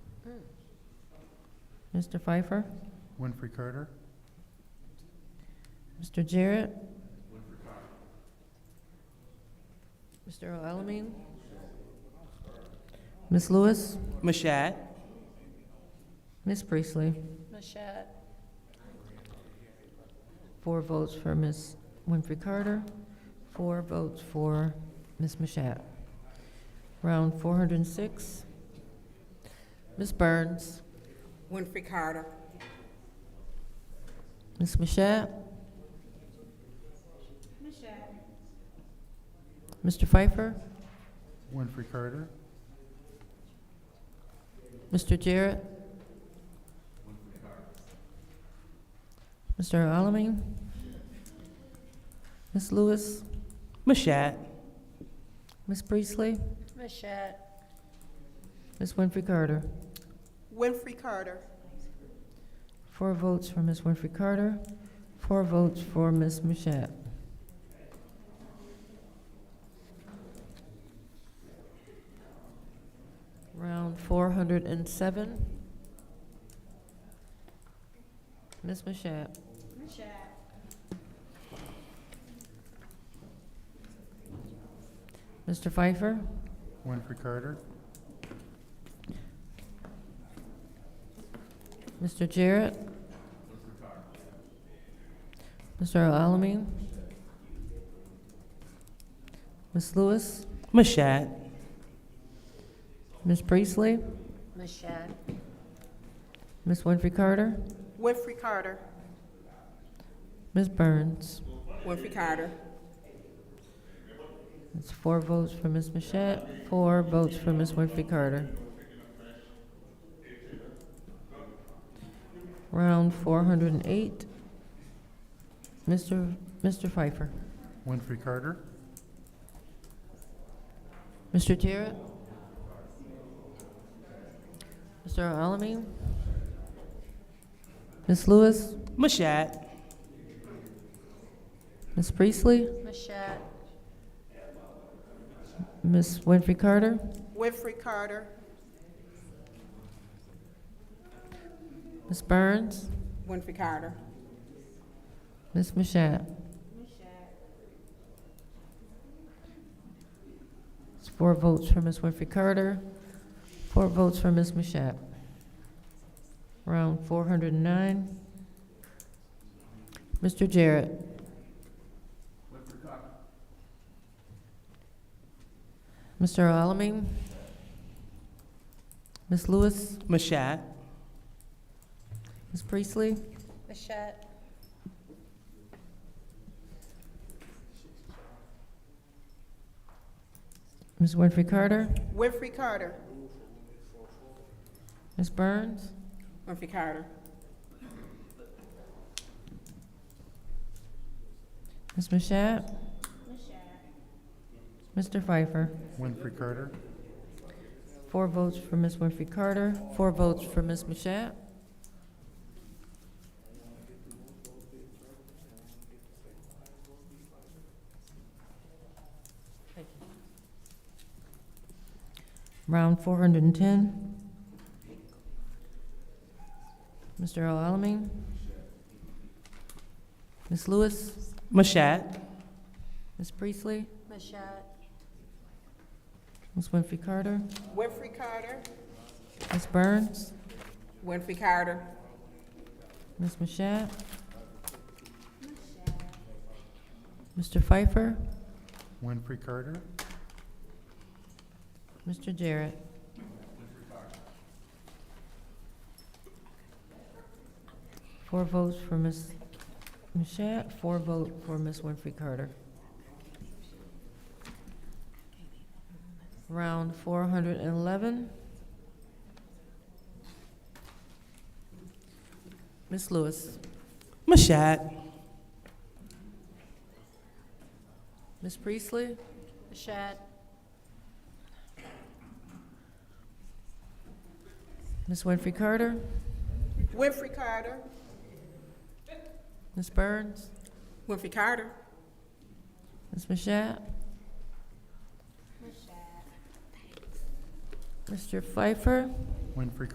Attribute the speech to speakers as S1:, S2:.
S1: Mr. Pfeiffer?
S2: Winfrey Carter,
S1: Mr. Jarrett? Mr. Alamin? Ms. Lewis?
S3: Mashat.
S1: Ms. Priestley?
S4: Mashat.
S1: Four votes for Ms. Winfrey Carter, four votes for Ms. Mashat. Round 406. Ms. Burns?
S5: Winfrey Carter.
S1: Ms. Mashat? Mr. Pfeiffer?
S2: Winfrey Carter,
S1: Mr. Jarrett? Mr. Alamin? Ms. Lewis?
S3: Mashat.
S1: Ms. Priestley?
S4: Mashat.
S1: Ms. Winfrey Carter?
S5: Winfrey Carter.
S1: Four votes for Ms. Winfrey Carter, four votes for Ms. Mashat. Round four hundred and seven. Ms. Mashat. Mr. Pfeiffer,
S2: Winfrey Carter,
S1: Mr. Jarrett. Mr. Alamin. Ms. Lewis.
S3: Mashat.
S1: Ms. Priestley,
S4: Mashat.
S1: Ms. Winfrey Carter,
S5: Winfrey Carter.
S1: Ms. Burns.
S5: Winfrey Carter.
S1: That's four votes for Ms. Mashat, four votes for Ms. Winfrey Carter. Round four hundred and eight. Mr. Mr. Pfeiffer,
S2: Winfrey Carter,
S1: Mr. Jarrett. Mr. Alamin. Ms. Lewis,
S3: Mashat.
S1: Ms. Priestley,
S4: Mashat.
S1: Ms. Winfrey Carter,
S5: Winfrey Carter.
S1: Ms. Burns,
S5: Winfrey Carter.
S1: Ms. Mashat. It's four votes for Ms. Winfrey Carter, four votes for Ms. Mashat. Round four hundred and nine. Mr. Jarrett. Mr. Alamin. Ms. Lewis,
S3: Mashat.
S1: Ms. Priestley,
S4: Mashat.
S1: Ms. Winfrey Carter,
S5: Winfrey Carter.
S1: Ms. Burns.
S5: Winfrey Carter.
S1: Ms. Mashat? Mr. Pfeiffer?
S2: Winfrey Carter,
S1: Four votes for Ms. Winfrey Carter, four votes for Ms. Mashat. Round four hundred and ten. Mr. Alamin? Ms. Lewis?
S3: Mashat.
S1: Ms. Priestley?
S4: Mashat.
S1: Ms. Winfrey Carter?
S5: Winfrey Carter.
S1: Ms. Burns?
S5: Winfrey Carter.
S1: Ms. Mashat? Mr. Pfeiffer?
S2: Winfrey Carter,
S1: Mr. Jarrett? Four votes for Ms. Mashat, four vote for Ms. Winfrey Carter. Round four hundred and eleven. Ms. Lewis?
S3: Mashat.
S1: Ms. Priestley?
S4: Mashat.
S1: Ms. Winfrey Carter?
S5: Winfrey Carter.
S1: Ms. Burns?
S5: Winfrey Carter.
S1: Ms. Mashat? Mr. Pfeiffer?
S2: Winfrey